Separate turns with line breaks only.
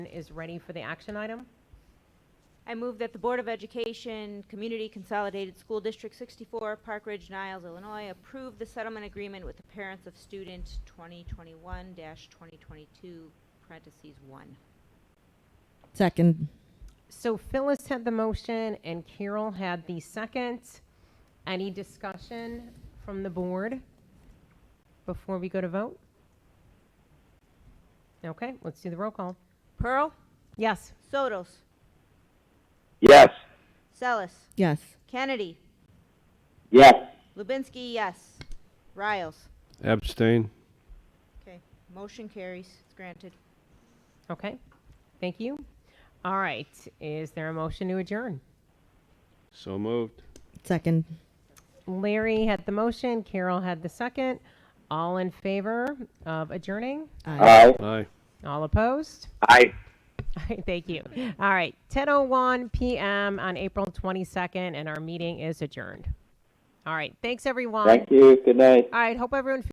is ready for the action item.
I move that the Board of Education, Community Consolidated School District 64, Park Ridge, Niles, Illinois, approve the settlement agreement with the parents of student 2021-2022, parentheses 1.
Second.
So Phyllis had the motion and Carol had the second. Any discussion from the board before we go to vote? Okay, let's do the roll call.
Pearl,
Yes.
Sotos,
Yes.
Celis,
Yes.
Kennedy,
Yes.
Lubinsky, yes. Riles.
Abstain.
Okay, motion carries, it's granted.
Okay, thank you. All right, is there a motion to adjourn?
So moved.
Second.
Larry had the motion, Carol had the second. All in favor of adjourning?
Aye.
Aye.
All opposed?
Aye.
All right, thank you. All right, 10:01 p.m. on April 22nd, and our meeting is adjourned. All right, thanks everyone.
Thank you. Good night.
All right, hope everyone.